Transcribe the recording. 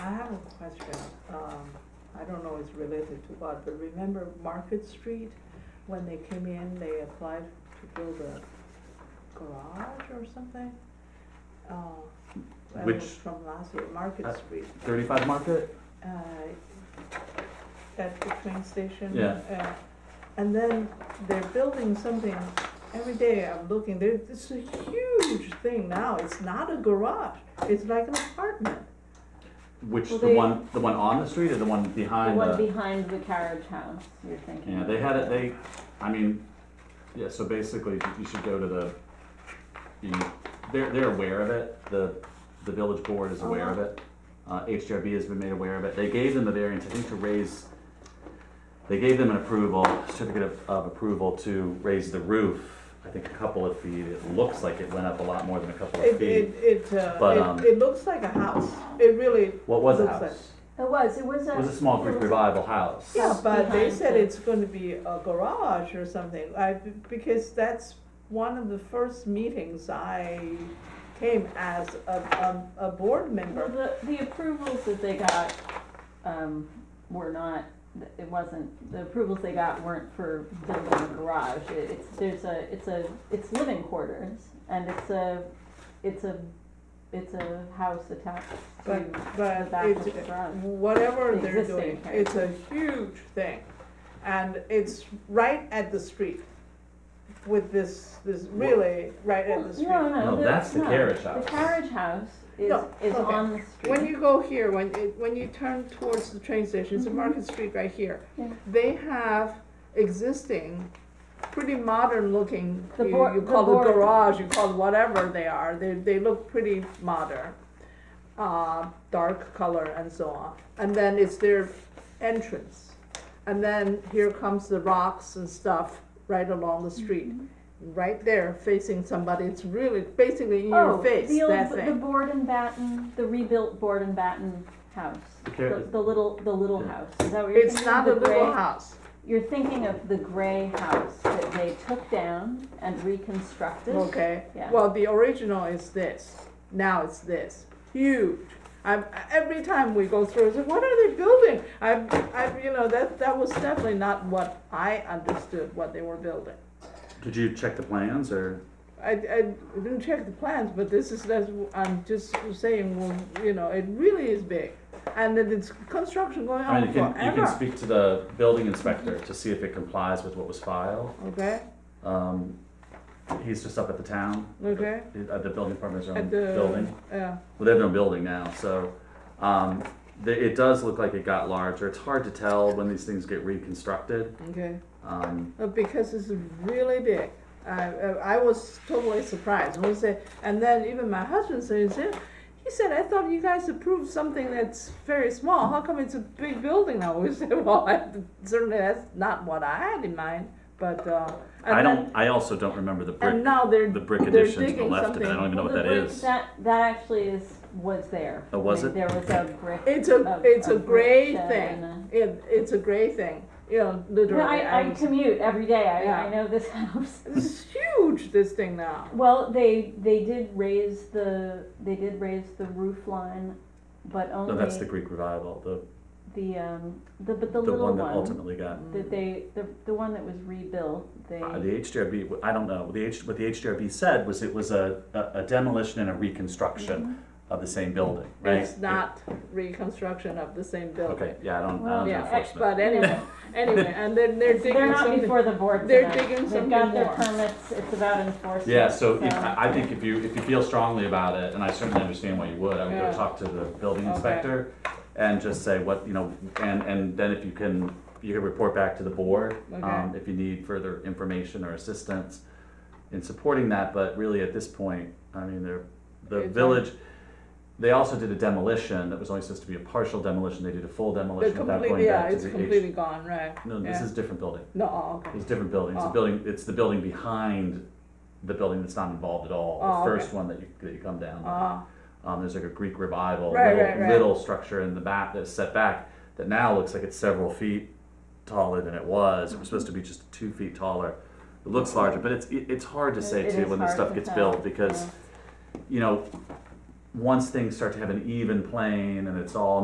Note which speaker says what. Speaker 1: have a question, um, I don't know it's related to what, but remember Market Street? When they came in, they applied to build a garage or something? Uh, that
Speaker 2: Which-
Speaker 1: was From last year, Market
Speaker 2: Uh,
Speaker 1: Street,
Speaker 2: Thirty-five Market?
Speaker 1: uh, at the train station.
Speaker 2: Yeah.
Speaker 1: uh, And then they're building something, every day I'm looking, there, it's a huge thing now, it's not a garage, it's like an apartment.
Speaker 2: Which,
Speaker 3: Well,
Speaker 2: the
Speaker 3: they-
Speaker 2: one, the one on the street or the one
Speaker 3: The
Speaker 2: behind
Speaker 3: one
Speaker 2: the?
Speaker 3: behind the carriage house, you're thinking.
Speaker 2: Yeah,
Speaker 3: of.
Speaker 2: they had it, they, I mean, yeah, so basically, you should go to the, you, they're, they're aware of it, the, the village board is aware of
Speaker 3: Uh-huh.
Speaker 2: it. Uh, HDRB has been made aware of it, they gave them the variance, I think, to raise, they gave them an approval, certificate of, of approval to raise the roof, I think a couple of feet, it looks like it went up a lot more than a couple of
Speaker 1: It, it,
Speaker 2: feet.
Speaker 1: it,
Speaker 2: But,
Speaker 1: uh,
Speaker 2: um,
Speaker 1: it, it looks like a house, it really,
Speaker 2: What was the
Speaker 1: looks like-
Speaker 2: house?
Speaker 3: It was, it was a.
Speaker 2: It was a small Greek
Speaker 3: it was a-
Speaker 2: revival house.
Speaker 1: yeah, but they
Speaker 3: Behind
Speaker 1: said
Speaker 3: it.
Speaker 1: it's gonna be a garage or something, I, because that's one of the first meetings I came as a, a, a board
Speaker 3: Well,
Speaker 1: member.
Speaker 3: the, the approvals that they got, um, were not, it wasn't, the approvals they got weren't for building a garage. It- It's, there's a, it's a, it's living quarters, and it's a, it's a, it's a house attached to
Speaker 1: But,
Speaker 3: the
Speaker 1: but
Speaker 3: back of the
Speaker 1: it's,
Speaker 3: garage.
Speaker 1: whatever
Speaker 3: The
Speaker 1: they're
Speaker 3: existing
Speaker 1: doing,
Speaker 3: area.
Speaker 1: it's a huge thing, and it's right at the street with this, this really right at the street.
Speaker 3: No, no,
Speaker 2: No,
Speaker 3: the-
Speaker 2: that's the
Speaker 3: no.
Speaker 2: carriage
Speaker 3: The
Speaker 2: house.
Speaker 3: carriage house is,
Speaker 1: No,
Speaker 3: is
Speaker 1: okay.
Speaker 3: on the street.
Speaker 1: When you go here, when, it- when you turn towards the train station, it's a
Speaker 3: Mhm.
Speaker 1: Market Street right here.
Speaker 3: Yeah.
Speaker 1: They have existing, pretty modern looking,
Speaker 3: The
Speaker 1: you,
Speaker 3: board-
Speaker 1: you
Speaker 3: the
Speaker 1: call it
Speaker 3: board.
Speaker 1: garage, you call it whatever they are, they, they look pretty modern. Uh, dark color and so on, and then it's their entrance. And then here comes the rocks and stuff right along the street,
Speaker 3: Mm-hmm.
Speaker 1: right there facing somebody, it's really basically in your
Speaker 3: Oh,
Speaker 1: face,
Speaker 3: the old,
Speaker 1: that
Speaker 3: the
Speaker 1: thing.
Speaker 3: board and batten, the rebuilt board and batten house.
Speaker 2: The car-
Speaker 3: The, the little, the little
Speaker 2: Yeah.
Speaker 3: house. Is that what you're
Speaker 1: It's
Speaker 3: thinking?
Speaker 1: not
Speaker 3: The
Speaker 1: a little
Speaker 3: gray-
Speaker 1: house.
Speaker 3: You're thinking of the gray house that they took down and reconstructed.
Speaker 1: Okay,
Speaker 3: Yeah.
Speaker 1: well, the original is this, now it's this, huge. I'm, every time we go through, I say, what are they building? I, I, you know, that, that was definitely not what I understood what they were building.
Speaker 2: Did you check the plans or?
Speaker 1: I, I didn't check the plans, but this is, that's, I'm just saying, well, you know, it really is big. And then it's construction going
Speaker 2: I mean,
Speaker 1: on
Speaker 2: you can, you can
Speaker 1: forever,
Speaker 2: speak to the building inspector to see if it complies with what was filed.
Speaker 1: okay,
Speaker 2: Um, he's just up at the town,
Speaker 1: okay?
Speaker 2: uh, the building department's own
Speaker 1: At the-
Speaker 2: building.
Speaker 1: Yeah,
Speaker 2: Well, they have no building now, so, um, the, it does look like it got larger. It's hard to tell when these things get reconstructed.
Speaker 1: okay.
Speaker 2: Um,
Speaker 1: Uh, because it's really big. I, uh, I I was totally surprised. I was, uh, and then even my husband said, he said, he said, I thought you guys approved something that's very small. How come it's a big building now? We said, well, I, certainly that's not what I had in mind. But uh, and
Speaker 2: I
Speaker 1: then-
Speaker 2: don't, I also don't remember the
Speaker 1: and
Speaker 2: brick,
Speaker 1: now they're
Speaker 2: the brick
Speaker 1: they're
Speaker 2: addition to the
Speaker 1: digging
Speaker 2: left of it. I don't
Speaker 1: something.
Speaker 2: even know
Speaker 3: Well,
Speaker 2: what that
Speaker 3: the brick-
Speaker 2: is.
Speaker 3: That, that actually is, was there.
Speaker 2: Oh, was
Speaker 3: I mean,
Speaker 2: it?
Speaker 3: There was a brick.
Speaker 1: It's a
Speaker 3: a-
Speaker 1: it's a,
Speaker 3: a
Speaker 1: gray
Speaker 3: brick shed
Speaker 1: thing.
Speaker 3: and
Speaker 1: It, it's a gray thing. You know,
Speaker 3: No,
Speaker 1: literally.
Speaker 3: I, I
Speaker 1: I'm-
Speaker 3: commute every day.
Speaker 1: Yeah.
Speaker 3: I, I know this house.
Speaker 1: it's huge. This thing now.
Speaker 3: Well, they, they did raise the, they did raise the roof line, but only
Speaker 2: No, that's the Greek revival, the,
Speaker 3: the, um, the, but the
Speaker 2: the
Speaker 3: little
Speaker 2: one that
Speaker 3: one
Speaker 2: ultimately got
Speaker 3: that they, the, the one that was rebuilt, they,
Speaker 2: Uh, the HDRB, I don't know, the H, what the HDRB said was it was a, a a demolition and a reconstruction of the same building,
Speaker 1: Mm-hmm.
Speaker 2: right?
Speaker 1: It's not reconstruction of the same building.
Speaker 2: Okay, yeah, I don't, I
Speaker 3: Well,
Speaker 2: don't
Speaker 1: Yeah,
Speaker 2: know
Speaker 1: ex-
Speaker 2: enforcement.
Speaker 1: but anyway, anyway, and then they're digging
Speaker 3: they're not
Speaker 1: something.
Speaker 3: before the board
Speaker 1: they're
Speaker 3: tonight.
Speaker 1: digging something
Speaker 3: They've got their
Speaker 1: more.
Speaker 3: permits, it's about enforcement.
Speaker 2: Yeah, so if, I I think if you, if you feel strongly about it, and I certainly understand why you would, I would
Speaker 1: Yeah.
Speaker 2: go talk to the building
Speaker 1: Okay.
Speaker 2: inspector and just say what, you know, and, and then if you can, you can report back to the board, um,
Speaker 1: Okay.
Speaker 2: if you need further information or assistance in supporting that, but really at this point, I mean, they're, the
Speaker 1: It's
Speaker 2: village, they also did a demolition that was only supposed to be a partial demolition, they did a full
Speaker 1: They're
Speaker 2: demolition without
Speaker 1: completely,
Speaker 2: going
Speaker 1: yeah,
Speaker 2: back to
Speaker 1: it's
Speaker 2: the H.
Speaker 1: completely gone, right?
Speaker 2: No, this
Speaker 1: yeah.
Speaker 2: is a different building.
Speaker 1: No, oh, okay.
Speaker 2: It's a different building. It's a
Speaker 1: Oh.
Speaker 2: building, it's the building behind the building that's not involved at all.
Speaker 1: Oh,
Speaker 2: The
Speaker 1: okay.
Speaker 2: first one that you, that you come down. on.
Speaker 1: Ah,
Speaker 2: Um, there's like a Greek revival,
Speaker 1: Right,
Speaker 2: little,
Speaker 1: right, right.
Speaker 2: little structure in the back that's set back that now looks like it's several feet taller than it was. It was supposed to be just two feet taller. It looks larger, but it's, it, it's hard to
Speaker 3: It-
Speaker 2: say
Speaker 3: it
Speaker 2: too
Speaker 3: is
Speaker 2: when this
Speaker 3: hard
Speaker 2: stuff
Speaker 3: to
Speaker 2: gets
Speaker 3: tell,
Speaker 2: built because, you know, once things start to have an even plane and it's all